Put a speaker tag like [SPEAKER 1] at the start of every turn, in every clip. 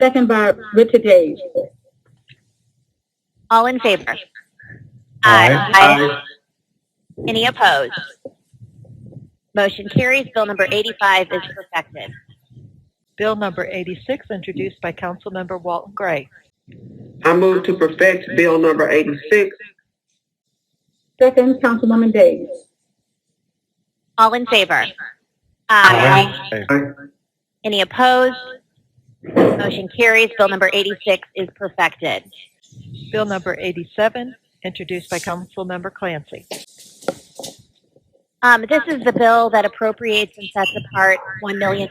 [SPEAKER 1] Second by Richard Hayes.
[SPEAKER 2] All in favor? Any opposed? Motion carries. Bill number 85 is perfected.
[SPEAKER 3] Bill number 86, introduced by Councilmember Walton Gray.
[SPEAKER 4] I move to perfect Bill number 86.
[SPEAKER 1] Second, Councilwoman Days.
[SPEAKER 2] All in favor?
[SPEAKER 4] Aye.
[SPEAKER 2] Any opposed? Motion carries. Bill number 86 is perfected.
[SPEAKER 3] Bill number 87, introduced by Councilmember Clancy.
[SPEAKER 2] Um, this is the bill that appropriates and sets apart $1 million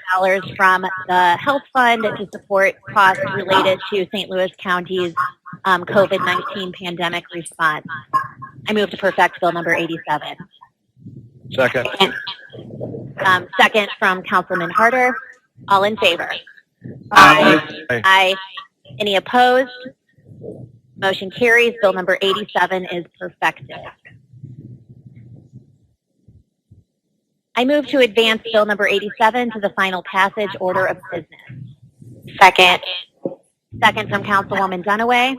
[SPEAKER 2] from the health fund to support costs related to St. Louis County's um, COVID-19 pandemic response. I move to perfect Bill number 87.
[SPEAKER 5] Second.
[SPEAKER 2] Um, second from Councilman Harder. All in favor?
[SPEAKER 5] Aye.
[SPEAKER 2] Aye. Any opposed? Motion carries. Bill number 87 is perfected. I move to advance Bill number 87 to the final passage order of business. Second. Second from Councilwoman Dunaway.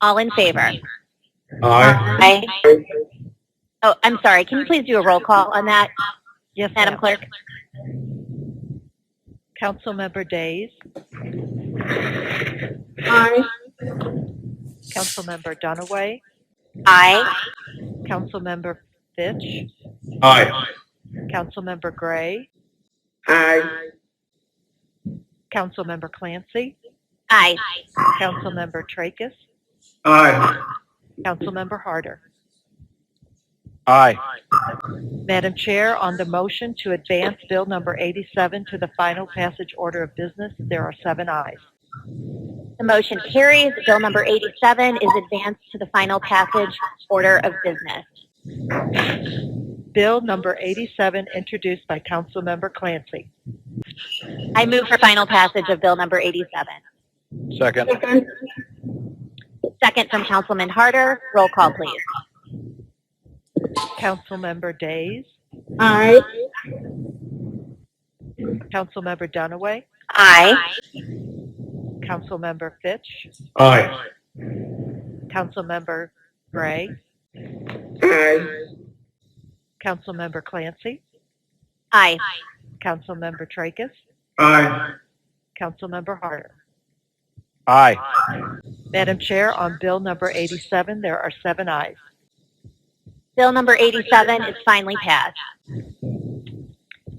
[SPEAKER 2] All in favor?
[SPEAKER 5] Aye.
[SPEAKER 2] Aye. Oh, I'm sorry. Can you please do a roll call on that,
[SPEAKER 3] Yes,
[SPEAKER 2] Madam
[SPEAKER 3] ma'am.
[SPEAKER 2] Clerk?
[SPEAKER 3] Councilmember Days,
[SPEAKER 1] Aye.
[SPEAKER 3] Councilmember Dunaway,
[SPEAKER 2] Aye.
[SPEAKER 3] Councilmember Fitch,
[SPEAKER 5] Aye.
[SPEAKER 3] Councilmember Gray,
[SPEAKER 4] Aye.
[SPEAKER 3] Councilmember Clancy,
[SPEAKER 2] Aye.
[SPEAKER 3] Councilmember Tracus,
[SPEAKER 5] Aye.
[SPEAKER 3] Councilmember Harder.
[SPEAKER 5] Aye.
[SPEAKER 3] Madam Chair, on the motion to advance Bill number 87 to the final passage order of business, there are seven ayes.
[SPEAKER 2] The motion carries. Bill number 87 is advanced to the final passage order of business.
[SPEAKER 3] Bill number 87, introduced by Councilmember Clancy.
[SPEAKER 2] I move for final passage of Bill number 87.
[SPEAKER 5] Second.
[SPEAKER 1] Second,
[SPEAKER 2] Second from Councilman Harder. Roll call, please.
[SPEAKER 3] Councilmember Days,
[SPEAKER 1] aye.
[SPEAKER 3] Councilmember Dunaway,
[SPEAKER 2] Aye.
[SPEAKER 3] Councilmember Fitch,
[SPEAKER 5] Aye.
[SPEAKER 3] Councilmember Gray,
[SPEAKER 4] Aye.
[SPEAKER 3] Councilmember Clancy,
[SPEAKER 2] Aye.
[SPEAKER 3] Councilmember Tracus,
[SPEAKER 5] Aye.
[SPEAKER 3] Councilmember Harder.
[SPEAKER 5] Aye.
[SPEAKER 3] Madam Chair, on Bill number 87, there are seven ayes.
[SPEAKER 2] Bill number 87 is finally passed.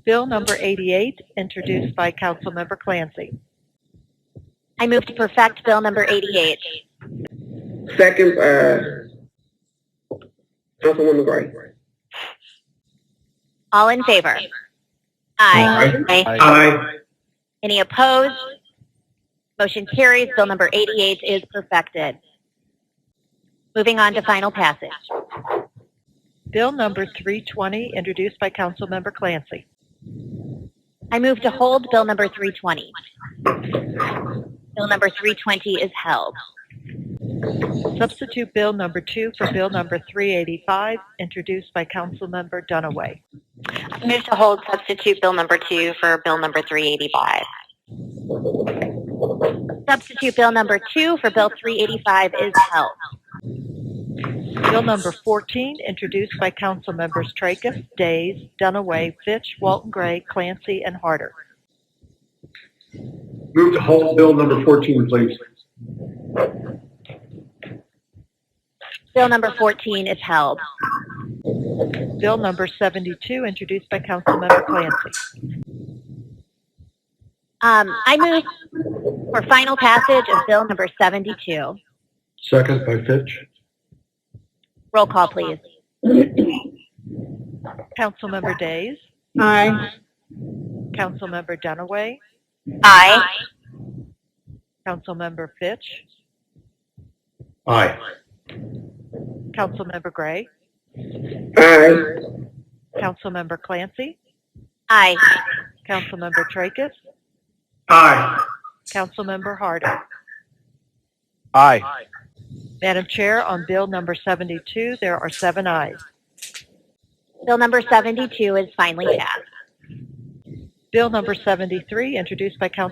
[SPEAKER 3] Bill number 88, introduced by Councilmember Clancy.
[SPEAKER 2] I move to perfect Bill number 88.
[SPEAKER 4] Second, uh, Councilwoman Gray.
[SPEAKER 2] All in favor? Aye.
[SPEAKER 4] Aye.
[SPEAKER 2] Any opposed? Motion carries. Bill number 88 is perfected. Moving on to final passage.
[SPEAKER 3] Bill number 320, introduced by Councilmember Clancy.
[SPEAKER 2] I move to hold Bill number 320. Bill number 320 is held.
[SPEAKER 3] Substitute Bill number 2 for Bill number 385, introduced by Councilmember Dunaway.
[SPEAKER 2] I move to hold substitute Bill number 2 for Bill number 385. Substitute Bill number 2 for Bill 385 is held.
[SPEAKER 3] Bill number 14, introduced by council members Tracus, Days, Dunaway, Fitch, Walton Gray, Clancy, and Harder.
[SPEAKER 6] Move to hold bill number 14, please.
[SPEAKER 2] Bill number 14 is held.
[SPEAKER 3] Bill number 72, introduced by council member Clancy.
[SPEAKER 2] Um, I move for final passage of Bill number 72.
[SPEAKER 6] Second by Fitch.
[SPEAKER 2] Roll call, please.
[SPEAKER 3] Council member Days,
[SPEAKER 1] Aye.
[SPEAKER 3] council member Dunaway,
[SPEAKER 2] Aye.
[SPEAKER 3] council member Fitch,
[SPEAKER 6] Aye.
[SPEAKER 3] council member Gray,
[SPEAKER 4] Aye.
[SPEAKER 3] council member Clancy,
[SPEAKER 2] Aye.
[SPEAKER 3] council member Tracus,
[SPEAKER 6] Aye.
[SPEAKER 3] council member Harder.
[SPEAKER 5] Aye.
[SPEAKER 3] Madam Chair, on bill number 72, there are seven ayes.
[SPEAKER 2] Bill number 72 is finally passed.
[SPEAKER 3] Bill number 73, introduced by council